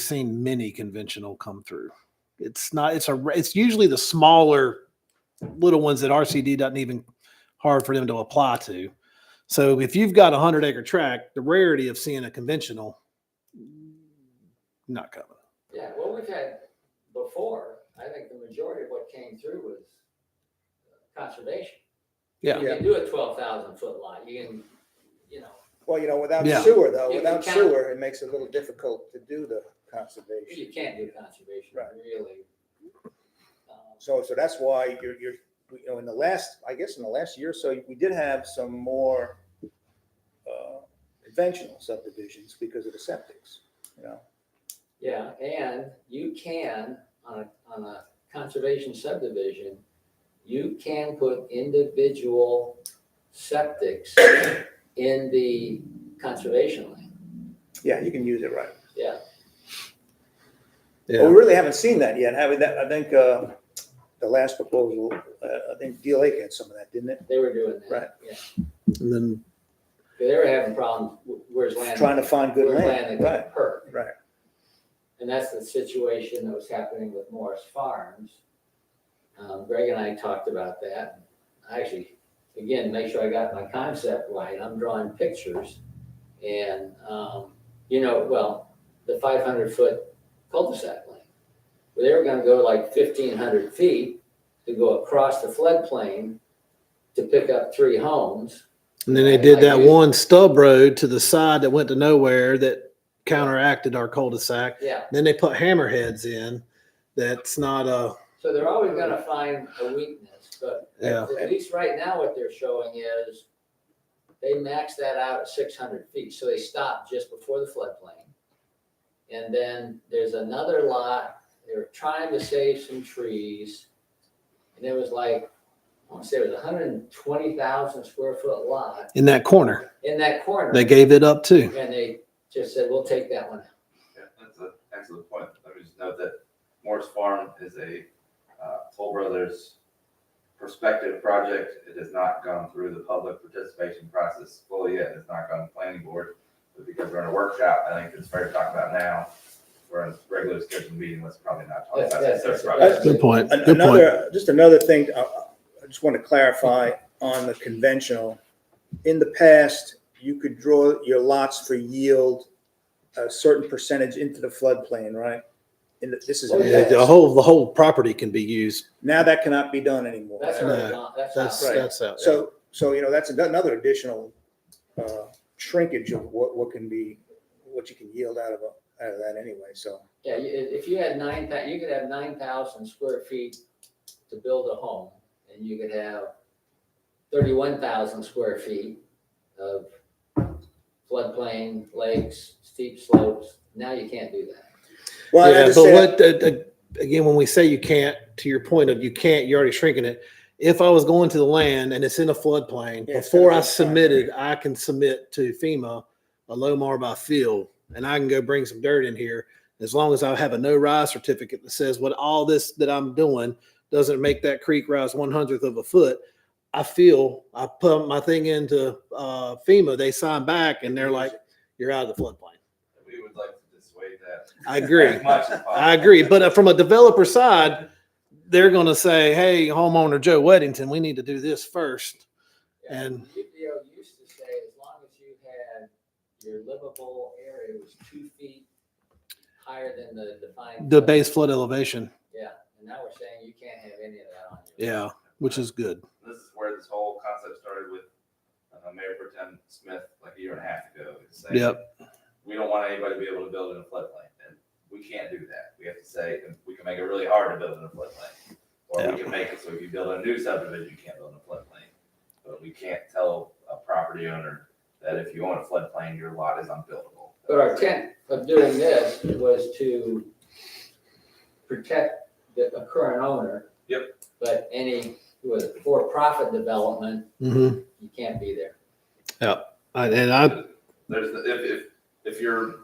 seen many conventional come through. It's not. It's a. It's usually the smaller, little ones that RCD doesn't even hard for them to apply to. So if you've got a hundred acre tract, the rarity of seeing a conventional, not coming. Yeah, well, we've had before, I think the majority of what came through was uh, conservation. Yeah. You can do a twelve thousand foot lot, you can, you know, Well, you know, without Yeah. sewer though, You without can- sewer, it makes it a little difficult to do the you conservation. can't do conservation, Right. really. Um, So, so that's why you're, you're, you know, in the last, I guess in the last year or so, we did have some more uh, conventional subdivisions because of the septics, you know? Yeah, and you can, on a, on a conservation subdivision, you can put individual septics in the conservation land, Yeah, you can use it right. yeah. But we really haven't seen that yet, have we? That, I think, uh, the last proposal, uh, I think Deal Lake had some of that, didn't it? They were doing that. Right. Yeah, And then they were having problems, wh- where's land? Trying to find good where's land, that right, got hurt. right. And that's the situation that was happening with Morris Farms. Um, Greg and I talked about that. I actually, again, make sure I got my concept right. I'm drawing pictures. And, um, you know, well, the five hundred foot cul-de-sac lane. Well, they were gonna go like fifteen hundred feet to go across the floodplain to pick up three homes. and then they Right, did like that you- one stub road to the side that went to nowhere that counteracted our cul-de-sac. Yeah, Then they put hammerheads in. That's not a. So they're always gonna find a weakness, but Yeah. at at least right now, what they're showing is they maxed that out at six hundred feet, so they stopped just before the floodplain. And then there's another lot, they were trying to save some trees. And it was like, I wanna say it was hundred and twenty thousand square foot lot In that corner, in that corner. they gave it up too. And they just said, we'll take that one out. Yeah, that's an excellent point. Let me just note that Morris Farm is a uh, Toll Brothers prospective project. It has not gone through the public participation process fully yet. It's not gone to planning board. But because we're in a workshop, I think it's fair to talk about now. We're in a regular scheduled meeting, let's probably not talk That's- about that's- that third that's- project. Good point. An- Good point. Another, just another thing, uh, I just want to clarify on the conventional. In the past, you could draw your lots for yield a certain percentage into the floodplain, right? And this is, in Oh, Yeah, the The past. whole the whole property can be used. now that cannot be done anymore. That's No, already gone, that's That's out. Right. that's out. there. So, so, you know, that's another additional uh, shrinkage of what, what can be, what you can yield out of, a- out of that anyway, so. Yeah, you- if if you had nine thou, you could have nine thousand square feet to build a home, and you could have thirty-one thousand square feet of floodplain, lakes, steep slopes. Now you can't do that. Well, I yeah, but understand, what uh, uh, again? When we say you can't, to your point of you can't, you're already shrinking it. If I was going to the land and it's in a floodplain, Yeah, it's before gotta I be a floodplain. submitted, I can submit to FEMA a low mar by field, and I can go bring some dirt in here as long as I have a no rise certificate that says what all this that I'm doing doesn't make that creek rise one hundredth of a foot. I feel I put my thing into uh, FEMA, they sign back, and they're like, "You're out of the floodplain." We would like to dissuade that. I agree. As much as possible. I agree, but uh, from a developer side, they're going to say, "Hey, homeowner Joe Weddington, we need to do this first. Yeah, And- UPO used to say as long as you had your livable area was two feet higher than the defined. The base flood elevation, Yeah, and now we're saying you can't have any of that on your. yeah, which is good. This is where this whole concept started with uh, Mayor Pro Tem Smith like a year and a half ago. It's saying, Yep, we don't want anybody to be able to build in a floodplain, and we can't do that. We have to say, we can make it really hard to build in a floodplain. Or we can make it so if you build a new subdivision, you can't build in a floodplain. But we can't tell a property owner that if you own a floodplain, your lot is unbuildable. But our intent of doing this was to protect the the current owner. Yep. But any, with for-profit development, hmm you can't be there. and I, There's, the- if, if, if your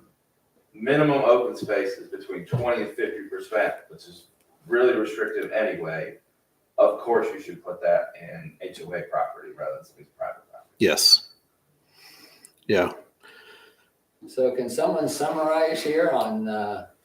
minimum open space is between twenty and fifty percent, which is really restrictive anyway, of course you should put that in HOA property rather than somebody's private property. yes, yeah. So can someone summarize here on, uh,